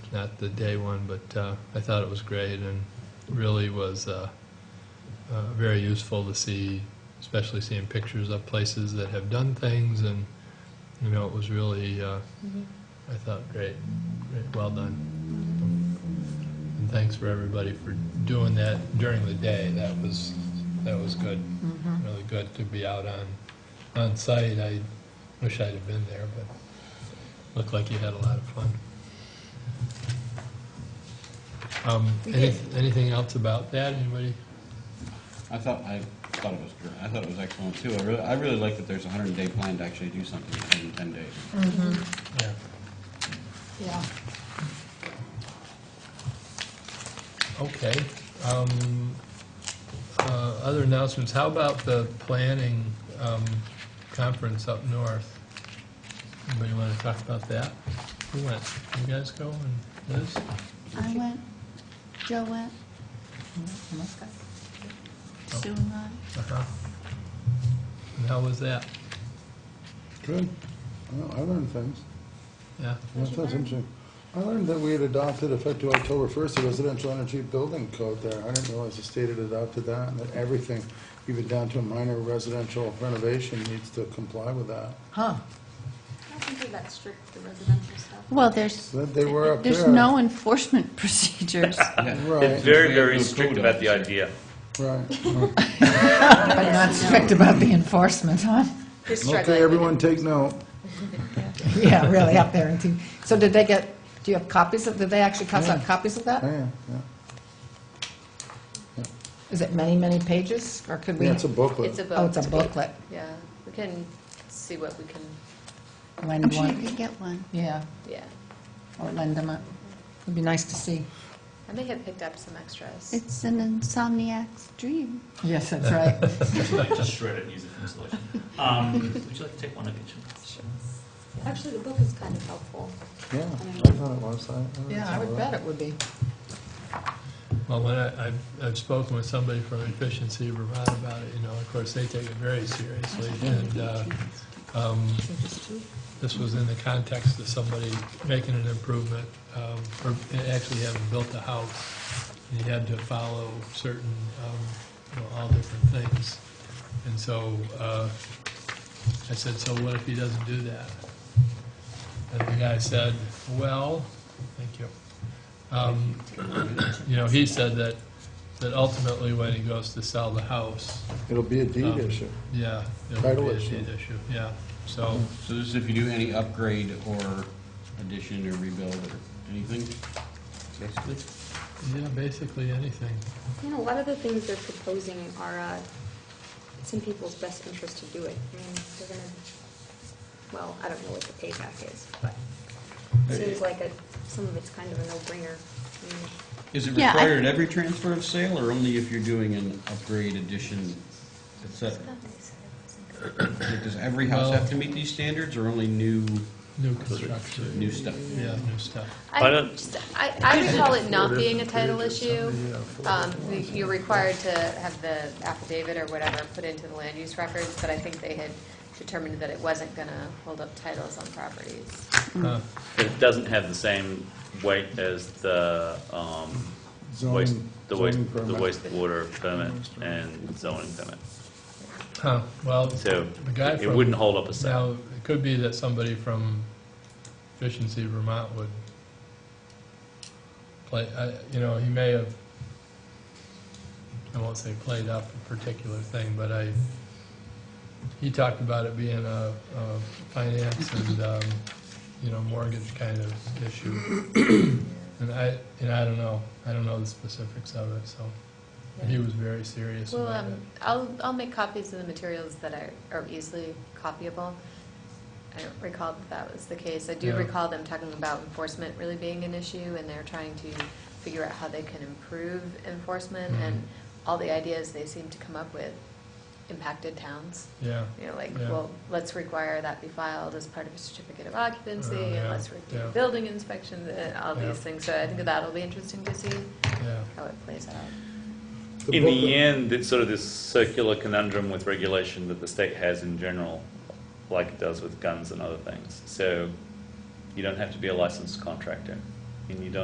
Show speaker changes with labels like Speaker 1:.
Speaker 1: not the day one, but uh, I thought it was great and really was uh, uh, very useful to see, especially seeing pictures of places that have done things. And, you know, it was really, uh, I thought, great, great, well done. And thanks for everybody for doing that during the day. That was, that was good,
Speaker 2: Mm-hmm.
Speaker 1: really good to be out on, on site. I wish I'd have been there, but looked like you had a lot of fun. Um,
Speaker 2: We
Speaker 1: any-
Speaker 2: did.
Speaker 1: Anything else about that? Anybody?
Speaker 3: I thought, I thought it was, gr- I thought it was excellent too. I really, I really like that there's a hundred day plan to actually do something within ten days.
Speaker 1: Yeah.
Speaker 2: Yeah.
Speaker 1: Okay. Um, uh, Other announcements, how about the planning um, conference up north? Anybody want to talk about that? Who went? You guys go and Liz?
Speaker 4: I went, Joe went, Sue and I.
Speaker 1: Uh-huh. And how was that?
Speaker 5: Good. Well, I learned things.
Speaker 1: Yeah,
Speaker 5: Yeah, That's interesting. I learned that we had adopted effective October first, the residential energy building code there. I didn't realize the state had adopted that and that everything, even down to a minor residential renovation, needs to comply with that.
Speaker 2: Huh.
Speaker 6: I don't think they're that strict with the residential stuff.
Speaker 4: Well, there's,
Speaker 5: That they were up there.
Speaker 4: there's no enforcement procedures,
Speaker 3: Yeah.
Speaker 7: It's
Speaker 5: Right,
Speaker 7: very, very strict about the idea.
Speaker 5: right.
Speaker 2: But not strict about the enforcement, huh?
Speaker 6: They're struggling with
Speaker 5: Okay,
Speaker 6: it.
Speaker 5: everyone take note.
Speaker 2: Yeah, really, up there. in T- So did they get, do you have copies of, did they actually pass out copies of that?
Speaker 5: Yeah, yeah.
Speaker 2: Is it many, many pages, or could we?
Speaker 5: Yeah, it's a
Speaker 8: It's a
Speaker 5: booklet.
Speaker 8: book.
Speaker 2: Oh, it's a booklet.
Speaker 8: Yeah, we can see what we can,
Speaker 2: Lend
Speaker 4: I'm sure you
Speaker 2: one.
Speaker 4: can get one.
Speaker 2: Yeah,
Speaker 8: yeah.
Speaker 2: or lend them out. It'd be nice to see.
Speaker 8: I may have picked up some extras.
Speaker 4: It's an insomniac's dream.
Speaker 2: Yes, that's right.
Speaker 9: Just shred it and use it for insulation. Um, Would you like to take one of each?
Speaker 6: Actually, the book is kind of helpful.
Speaker 5: Yeah, I thought it was. I- I
Speaker 2: Yeah, I would bet it would be.
Speaker 1: well, when I, I've- I've spoken with somebody from Efficiency Vermont about it, you know, of course, they take it very seriously, and, uh, um, this was in the context of somebody making an improvement, um, or actually having built a house, and you had to follow certain, um, you know, all different things. And so, uh, I said, so what if he doesn't do that? And the guy said, well, thank you. Um, You know, he said that, that ultimately when he goes to sell the house,
Speaker 5: It'll be a deed
Speaker 7: Oh.
Speaker 1: Um,
Speaker 5: issue.
Speaker 1: yeah, it would
Speaker 5: Title
Speaker 1: be a
Speaker 5: issue.
Speaker 1: deed issue, yeah, so.
Speaker 3: So this is if you do any upgrade or addition or rebuild or anything, basically?
Speaker 1: Yeah, basically anything.
Speaker 6: You know, a lot of the things they're proposing are, uh, it's in people's best interest to do it. I mean, they're gonna, well, I don't know what the payback is, but it seems like a, some of it's kind of a no-brainer. I mean,
Speaker 3: Is it
Speaker 4: Yeah, I-
Speaker 3: required at every transfer of sale or only if you're doing an upgrade, addition, et cetera? Like, Does every house have to meet these standards or only new,
Speaker 1: New construction.
Speaker 3: new stuff?
Speaker 1: Yeah, new stuff.
Speaker 7: I
Speaker 8: I,
Speaker 7: don't-
Speaker 8: just- I I recall it not being a title issue. Um, You're required to have the affidavit or whatever put into the land use records, but I think they had determined that it wasn't going to hold up titles on properties.
Speaker 1: Huh.
Speaker 7: It doesn't have the same weight as the, um, waste,
Speaker 5: Zoning-
Speaker 7: the waste,
Speaker 5: zoning
Speaker 7: the
Speaker 5: permit.
Speaker 7: wastewater permit and zoning permit.
Speaker 1: Huh, well,
Speaker 7: So
Speaker 1: The guy
Speaker 7: it
Speaker 1: from-
Speaker 7: wouldn't hold up a sale.
Speaker 1: now, it could be that somebody from Efficiency Vermont would play, I- you know, he may have, I won't say played up a particular thing, but I, he talked about it being a a finance and, um, you know, mortgage kind of issue. And I, and I don't know, I don't know the specifics of it, so, but he was very serious
Speaker 8: Well,
Speaker 1: about it.
Speaker 8: um, I'll, I'll make copies of the materials that are, are easily copyable. I don't recall that that was the case. I do
Speaker 1: Yeah.
Speaker 8: recall them talking about enforcement really being an issue, and they're trying to figure out how they can improve enforcement,
Speaker 1: Mm-hmm.
Speaker 8: and all the ideas they seem to come up with impacted towns.
Speaker 1: Yeah.
Speaker 8: You know, like,
Speaker 1: Yeah.
Speaker 8: well, let's require that be filed as part of a certificate of occupancy,
Speaker 1: Oh, yeah,
Speaker 8: and let's
Speaker 1: yeah.
Speaker 8: review building inspections, and all
Speaker 1: Yeah.
Speaker 8: these things. So I think that'll be interesting to see
Speaker 1: Yeah,
Speaker 8: how it plays out.
Speaker 5: The
Speaker 7: In
Speaker 5: booklet-
Speaker 7: the end, it's sort of this circular conundrum with regulation that the state has in general, like it does with guns and other things. So you don't have to be a licensed contractor, and you don't